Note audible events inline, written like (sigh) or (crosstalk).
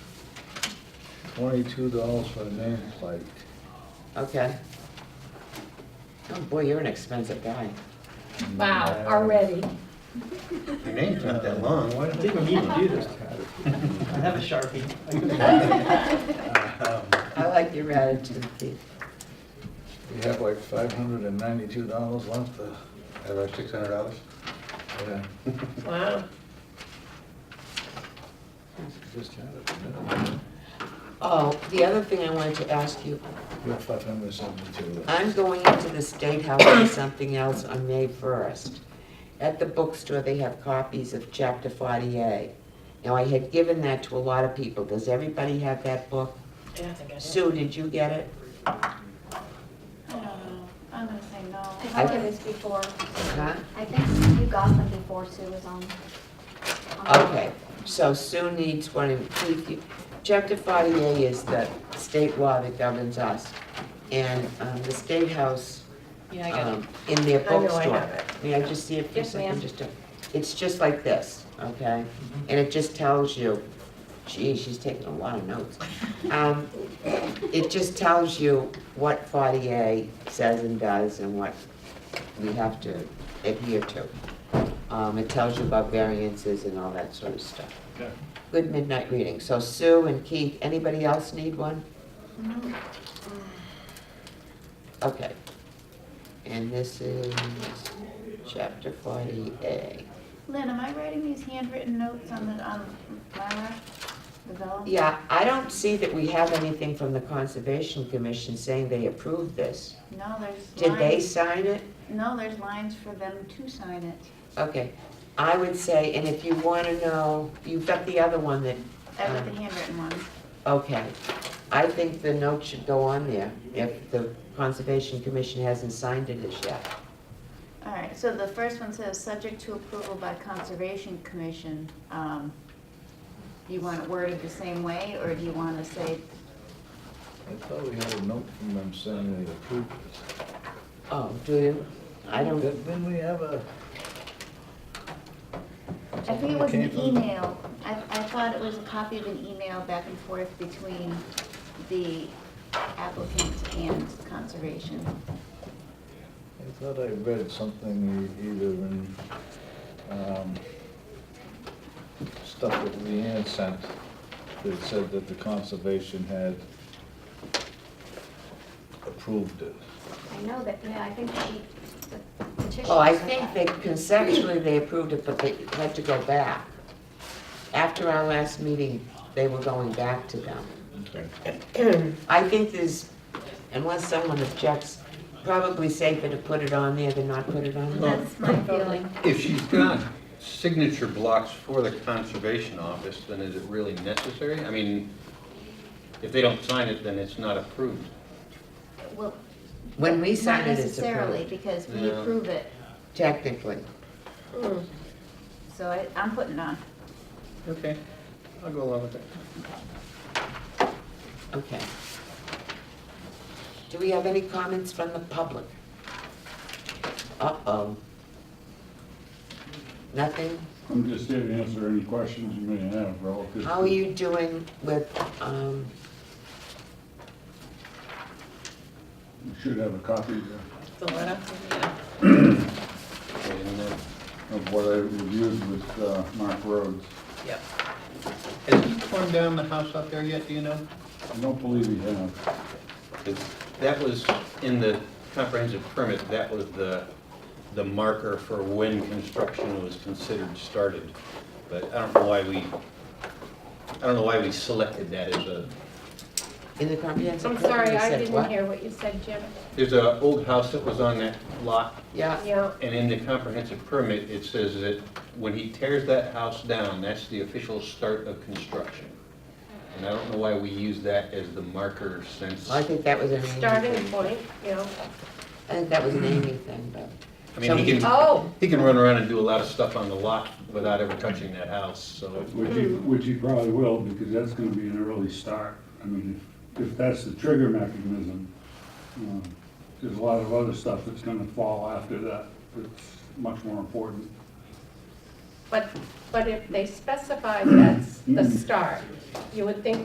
twenty-two dollars for the nameplate. Okay. Oh, boy, you're an expensive guy. Wow, already. Your name's not Uh, that long. I didn't need to do this, Ted. I have a Sharpie. I could- I like your attitude, Pete. We have like five hundred and ninety-two dollars left to, At our six hundred dollars? yeah, Wow. just had it. a minute ago. Oh, the other thing I wanted to ask you, We have five hundred and seventy-two. I'm going into the State House and something else on May 1st. At the bookstore, they have copies of Chapter 48. Now, I had given that to a lot of people. Does everybody have that book? Yeah, I think I did. Sue, did you get it? I don't know. I'm gonna say no. I got this before. Huh? I think you got them before Sue was on. on the- Okay, so Sue needs one, and Keith, you- chapter 48 is the state law that governs us. And um, the State House, Yeah, I got it. um, in their I know I bookstore. have it. May I just see it for a Yes, second? ma'am. Mm-hmm. Just to- It's just like this, okay? And it just tells you, gee, she's taking a lot (laughs) of notes. Um, It just tells you what 48 says and does and what we have to adhere to. Um, It tells you about variances and all that sort of stuff. Good midnight reading. So Sue and Keith, anybody else need one? Okay. And this is chapter 48. Lynn, am I writing these handwritten notes on the, on Mylar, the vellum? Yeah, I don't see that we have anything from the Conservation Commission saying they approved this. No, there's Did they lines, sign it? no, there's lines for them to sign it. Okay, I would say, and if you want to know, you've got the other one that, um, That was uh, the handwritten one. okay. I think the note should go on there if the Conservation Commission hasn't signed it as yet. All right, so the first one says, subject to approval by Conservation Commission. Um, You want it worded the same way, or do you want to say, I thought we had a note from them saying they approved it. Oh, do you? I don't, Didn't didn't we have a? I think it was an email. I, I thought it was a copy of an email back and forth between the applicant and Conservation. I thought I read something e- either in, um, stuff that Leanne sent that said that the conservation had approved it. I know that, yeah, I think she, the petition. oh, I said think that. they conceptually they approved it, but they had to go back. After our last meeting, they were going back to them. Okay. I think there's, unless someone objects, probably safer to put it on there than not put it on there. That's my feeling. If she's got signature blocks for the conservation office, then is it really necessary? I mean, if they don't sign it, then it's not approved. Well, When we not sign it, it's necessarily, approved, because we No. approve it, technically. so I, I'm putting it on. Okay, I'll go along with it. Okay. Do we have any comments from the public? Uh-oh. Nothing? I'm just here to answer any questions you may have relative. How are you doing with, um, You should have a copy of- The letter, yeah. Okay, and then- of what I reviewed with uh, Mark Rhodes. Yep. Has he torn down the house out there yet, do you know? I don't believe he has. 'Cause That was in the comprehensive permit, that was the, the marker for when construction was considered started. But I don't know why we, I don't know why we selected that as a, in the comprehensive? I'm plan? sorry, You I said didn't what? hear what you said, Jim. there's an old house that was on that lot, Yeah, Yeah, and in the comprehensive permit, it says that when he tears that house down, that's the official start of construction. And I don't know why we use that as the marker since, I I think that was an Amy starting thing. point, yeah. I think that was an Amy thing, but. mean, he can, Oh, He can run around and do a lot of stuff on the lot without ever touching that house, so. Which he, Hmm. which he probably will, because that's gonna be an early start. I mean, if, if that's the trigger mechanism, um, there's a lot of other stuff that's gonna fall after that, that's much more important. but, but if they specify that's the Mm. start, you would think